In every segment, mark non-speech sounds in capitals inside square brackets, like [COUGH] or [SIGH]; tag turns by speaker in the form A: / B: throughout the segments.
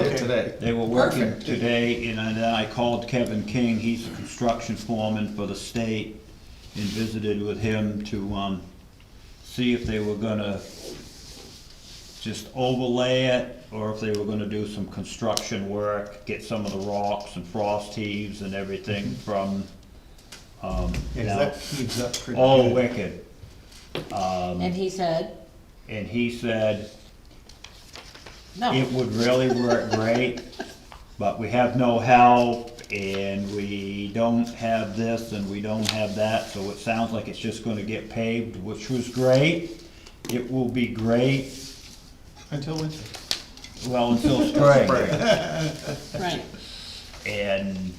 A: did
B: Okay.
A: today.
C: They were working
A: Perfect.
C: today, and then I called Kevin King, he's a construction foreman for the state, and visited with him to, um, see if they were gonna just overlay it, or if they were gonna do some construction work, get some of the rocks and frost heaves and everything from, um,
B: Yeah, 'cause that heaves up pretty
C: all
B: good.
C: wicked.
D: And he said,
C: And he said,
D: no,
C: It would really work great, but we have no help, and we don't have this, and we don't have that, so it sounds like it's just gonna get paved, which was great. It will be great,
B: Until winter.
C: well, until spring,
A: Right.
D: right.
C: and.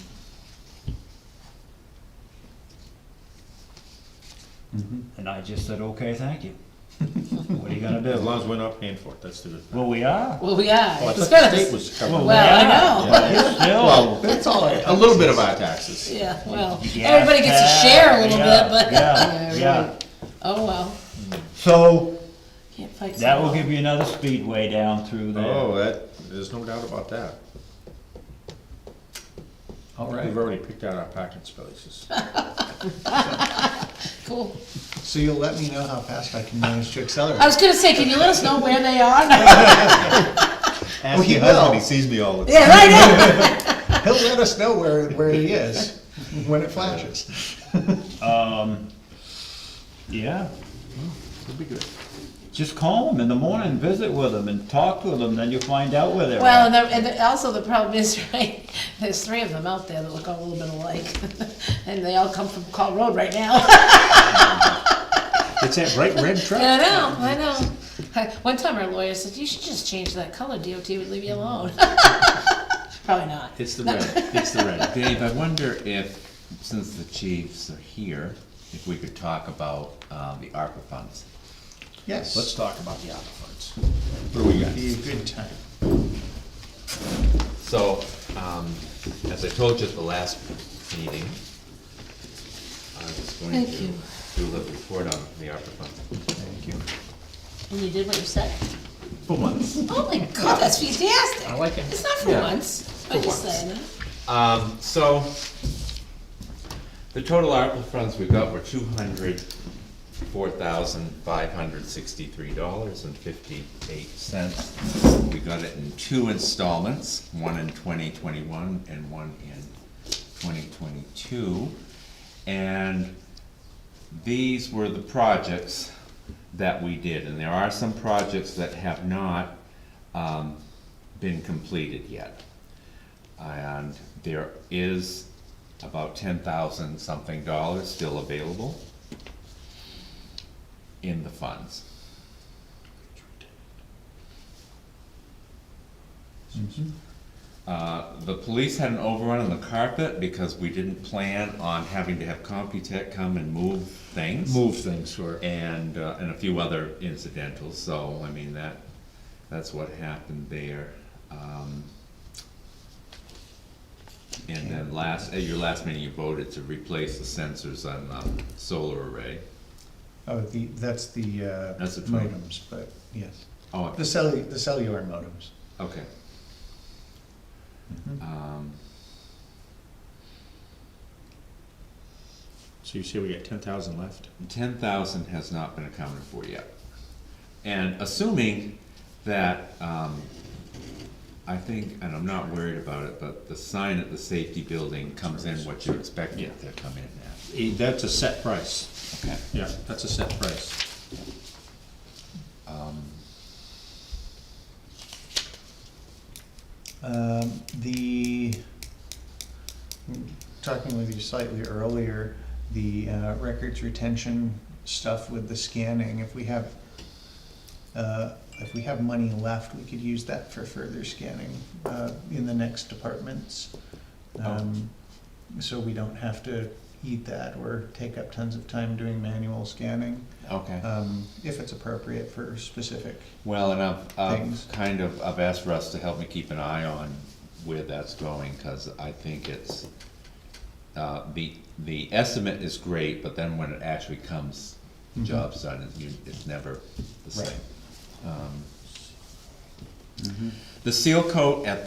C: And I just said, okay, thank you. [LAUGHS] What are you gonna
A: As
C: do?
A: long as we're not paying for it, that's the good thing.
C: Well, we are.
D: Well, yeah,
A: Well, I
D: it was
A: thought the state
D: gonna,
A: was
C: Well,
A: covering.
C: we
D: Well, I
C: are,
D: know.
C: but it's still-
A: Well, that's all, right. a little bit of our taxes.
D: yeah, well,
C: Yeah,
D: everybody gets to
C: yeah,
D: share a little
C: yeah,
D: bit, but. [LAUGHS]
C: Yeah, yeah.
D: right. Oh, well,
C: So,
D: can't fight.
C: that will
D: someone.
C: give you another speedway down through there.
A: Oh, that, there's no doubt about that.
B: All
A: We've already picked out our parking spaces.
D: Cool.
B: So you'll let me know how fast I can manage to
D: I
B: accelerate.
D: was gonna say, can you let us know where they are? Yeah,
A: Ask
B: your husband, Oh, he
A: sees me all the
D: right now.
B: [LAUGHS] He'll let us know where, where he is, [LAUGHS] when it flashes.
C: Yeah, Hmm,
A: It'd be good.
C: just call them in the morning, visit with them and talk with them, then you'll find out where they're
D: Well,
C: at.
D: and, the- and the- also the problem is, [LAUGHS] right, there's three of them out there that look all a little bit alike, [LAUGHS] and they all come from Call Road right now.
A: It's that bright
D: [LAUGHS]
A: red
D: I
A: truck.
D: know, I know. [LAUGHS] One time our lawyer said, you should just change that color, DOT would leave you alone. [LAUGHS] Probably not.
E: It's the red, it's the red. Dave, I wonder if, since the chiefs are here, if we could talk about, um, the ARPA funds.
B: Yes.
A: Let's talk about the ARPA funds. What do we got?
B: Be a good time.
E: So, um, as I told you at the last meeting, I was going to
D: Thank you.
E: do a little report on the ARPA funds.
B: Thank you.
D: And you did what you said?
E: For once.
D: Oh my god, that's fantastic! I
E: like it.
D: It's not for
E: Yeah.
D: once, I'm
E: For
D: just
E: once.
D: saying that.
E: Um, so, the total ARPA funds we got were two hundred four thousand five hundred sixty-three dollars and fifty-eight cents. We got it in two installments, one in twenty twenty-one and one in twenty twenty-two. And these were the projects that we did, and there are some projects that have not, um, been completed yet. And there is about ten thousand something dollars still available in the funds. Uh, the police had an overrun on the carpet because we didn't plan on having to have Computech come and move things
A: Move things for.
E: and, uh, and a few other incidentals, so, I mean, that, that's what happened there. Um, And then last, at your last meeting, you voted to replace the sensors on the solar array.
B: Oh, the, that's the, uh,
E: That's the twin.
B: modems, but, yes.
E: Oh,
B: The cellu, the cellular modems.
E: okay. Um,
A: So you say we got ten thousand left?
E: ten thousand has not been accounted for yet. And assuming that, um, I think, and I'm not worried about it, but the sign at the safety building comes in what you're expecting it to come in at.
A: That's a set price.
E: Okay.
A: Yeah, that's a set price.
B: Um, the, hmm, talking with you slightly earlier, the uh, records retention stuff with the scanning, if we have, uh, if we have money left, we could use that for further scanning uh, in the next departments. Um, So we don't have to eat that or take up tons of time doing manual scanning,
E: Okay.
B: um, if it's appropriate for specific.
E: Well, and I've,
B: Things.
E: I've kind of, I've asked Russ to help me keep an eye on where that's going, cause I think it's, uh, the, the estimate is great, but then when it actually comes, job's done, it's, you- it's never the same.
B: Right.
E: Um, The seal coat at